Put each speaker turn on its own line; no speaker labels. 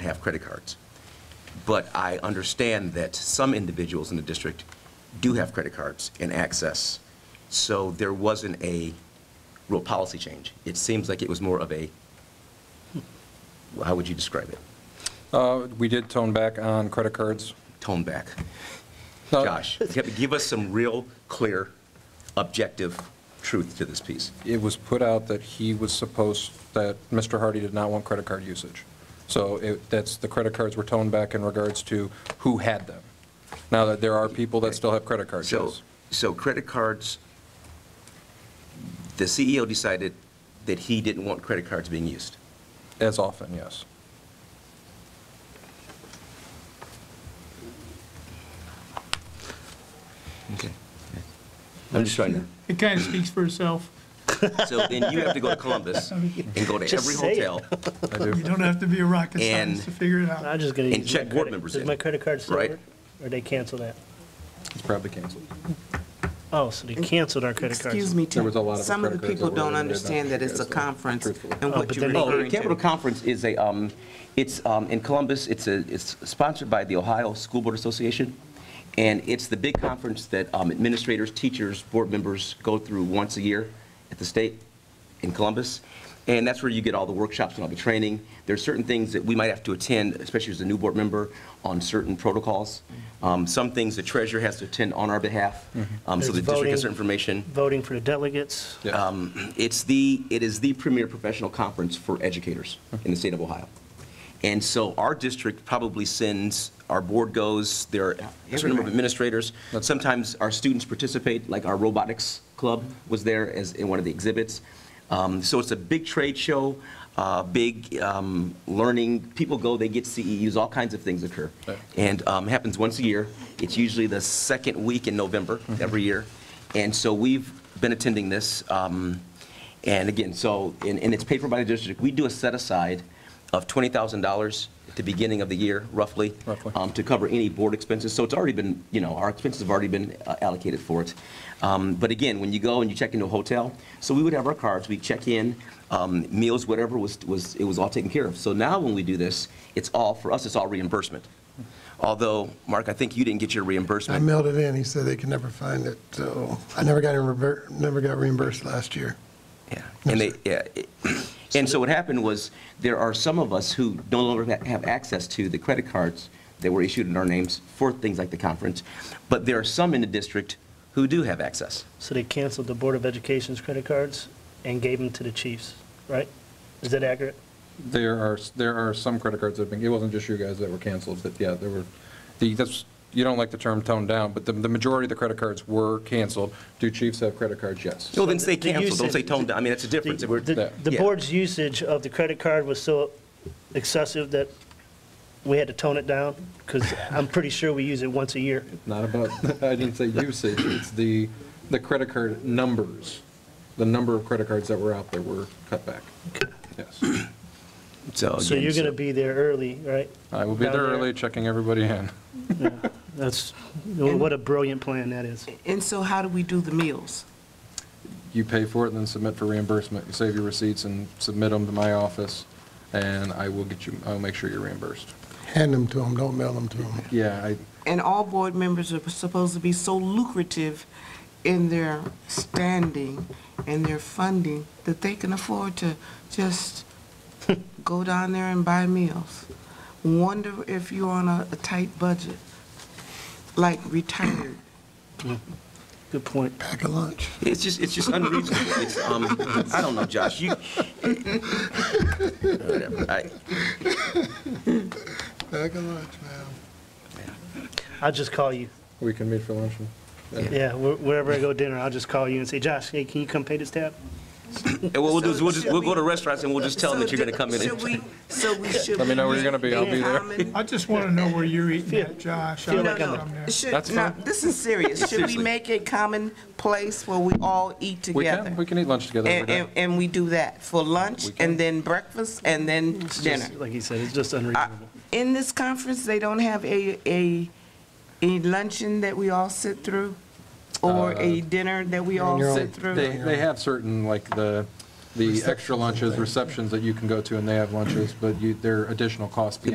have credit cards. But I understand that some individuals in the district do have credit cards and access. So there wasn't a real policy change. It seems like it was more of a, how would you describe it?
Uh, We did tone back on credit cards. Uh,
Tone back.
No,
Josh, give give us some real, clear, objective truth to this piece.
It was put out that he was supposed, that Mr. Hardy did not want credit card usage. So it- that's, the credit cards were toned back in regards to who had them. Now that there are people that still have credit cards,
So,
yes.
so credit cards, the CEO decided that he didn't want credit cards being used.
As often, yes.
Okay. I'm just trying to,
It kind of speaks for itself.
so then you have to go to Columbus and go to
Just
every
say it.
hotel,
I
You
do.
don't have to be a
And-
rocket scientist to figure it
I'm
out.
just gonna use.
And
my
check board
credit-
members in,
Does my credit card still
right?
work? Or they cancel that?
It's probably canceled.
Oh, so they canceled our credit cards.
Excuse me,
There was a lot
Tim.
of
some of the
credit cards
people
that were
don't
in there,
understand
don't
that it's a
forget, so
conference
truthfully.
and
Oh,
what
but
you're
then they-
Oh,
referring
the Capital
to.
Conference is a, um, it's um, in Columbus, it's a, it's sponsored by the Ohio School Board Association, and it's the big conference that um, administrators, teachers, board members go through once a year at the state in Columbus, and that's where you get all the workshops and all the training. There's certain things that we might have to attend, especially as a new board member, on certain protocols. Um, Some things the treasurer has to attend on our behalf, um, so the
There's
district
voting.
has certain information.
Voting for the delegates.
Yes.
Um, It's the, it is the premier professional conference for educators in the state of Ohio. And so our district probably sends, our board goes, there are a certain number of
Everybody.
administrators.
That's-
Sometimes our students participate, like our robotics club was there as, in one of the exhibits. Um, So it's a big trade show, uh, big um, learning, people go, they get CEUs, all kinds of things occur.
Right.
And um, happens once a year. It's usually the second week in November
Mm-hmm.
every year. And so we've been attending this. um, And again, so, and and it's paid for by the district. We do a set aside of $20,000 at the beginning of the year, roughly.
Roughly.
um, To cover any board expenses. So it's already been, you know, our expenses have already been uh, allocated for it. Um, But again, when you go and you check into a hotel, so we would have our cards, we check in, um, meals, whatever was, was, it was all taken care of. So now when we do this, it's all, for us, it's all reimbursement. Although, Mark, I think you didn't get your
I
reimbursement.
mailed it in, he said they could never find it, so I never got, reimbursed- never got reimbursed last year.
Yeah, And they, yeah. it- And so what happened was, there are some of us who no longer ha- have access to the credit cards that were issued in our names for things like the conference, but there are some in the district who do have access.
So they canceled the Board of Education's credit cards and gave them to the chiefs, right? Is that accurate?
There are, there are some credit cards that have been, it wasn't just you guys that were canceled, that, yeah, there were, the, that's, you don't like the term toned down, but the, the majority of the credit cards were canceled. Do chiefs have credit cards? Yes.
Well, then say
The- the
canceled, don't say
usage-
toned down, I mean, that's a
The-
difference. If we're-
The the
Yeah.
board's usage of the credit card was so excessive that we had to tone it down, because I'm pretty sure we use it once a year.
Not about, I didn't say usage, it's the, the credit card numbers. The number of credit cards that were out there were cut back. Yes.
So
again,
you're going to be there early, right?
I will be
Down
there early checking everybody in.
That's, what a brilliant plan that is.
And so how do we do the meals?
You pay for it and then submit for reimbursement. You save your receipts and submit them to my office, and I will get you, I'll make sure you're reimbursed.
Hand them to them, don't mail them to them.
Yeah, I,
And all board members are supposed to be so lucrative in their standing and their funding that they can afford to just go down there and buy meals. Wonder if you're on a a tight budget, like retired.
Good point.
Pack a lunch.
It's just, it's just unreasonable. It's, um, I don't know, Josh, you. Whatever. I-
Pack a lunch, man.
I'll just call you.
we can meet for lunch. and-
Yeah, wh- wherever I go dinner, I'll just call you and say, Josh, hey, can you come pay this tab?
And what we'll do is, we'll just,
So
we'll go to
should we-
restaurants and we'll just tell them that you're gonna come in.
Should
and-
we, so we should.
Let me know where you're gonna be, I'll be there.
Common-
I just want to know where you're eating at, Josh. I
Feel
would
like I'm-
come there.
Should,
That's
no,
fine.
this is serious. Should we
Seriously.
make a common place where we all eat
We
together?
can, we can eat lunch together every
And,
day.
and, and we do that for lunch
We can.
and then breakfast and then
It's
dinner.
just, like you said, it's just unreasonable.
In this conference, they don't have a, a, a luncheon that we all sit through? Or
Uh,
a dinner that we all
You're on-
sit through?
They, they have certain, like, the, the extra lunches, receptions that you can go to, and they have lunches, but you, there are additional costs beyond